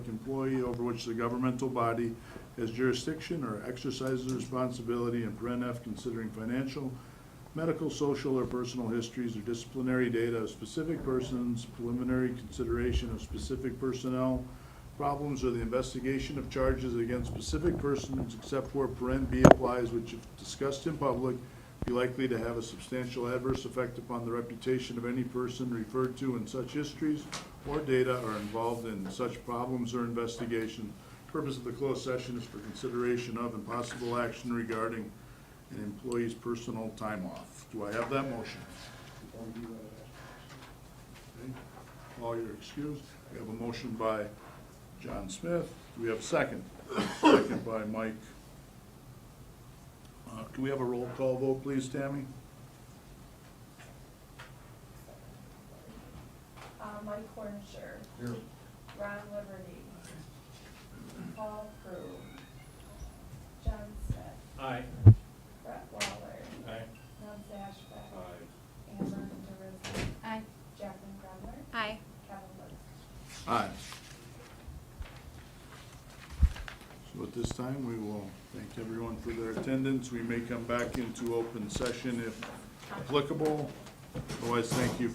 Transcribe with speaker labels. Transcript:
Speaker 1: employee over which the governmental body has jurisdiction or exercises responsibility, and paren F, considering financial, medical, social, or personal histories or disciplinary data of specific persons, preliminary consideration of specific personnel, problems, or the investigation of charges against specific persons except where paren B applies, which if discussed in public, be likely to have a substantial adverse effect upon the reputation of any person referred to in such histories or data or involved in such problems or investigation. Purpose of the closed session is for consideration of and possible action regarding an employee's personal time off. Do I have that motion? Okay. All you're excused. We have a motion by John Smith. Do we have a second? Second by Mike. Uh, Can we have a roll call vote, please, Tammy?
Speaker 2: Uh, Mike Cornsher. Ron Liberty. Paul Crew. John Smith.
Speaker 3: Aye.
Speaker 2: Brett Waller.
Speaker 3: Aye.
Speaker 2: Tom Sashback. Amber DeRusa.
Speaker 4: Aye.
Speaker 2: Jacqueline Grumler.
Speaker 4: Aye.
Speaker 2: Kevin Lewis.
Speaker 1: Aye. So at this time, we will thank everyone for their attendance. We may come back into open session if applicable. Otherwise, thank you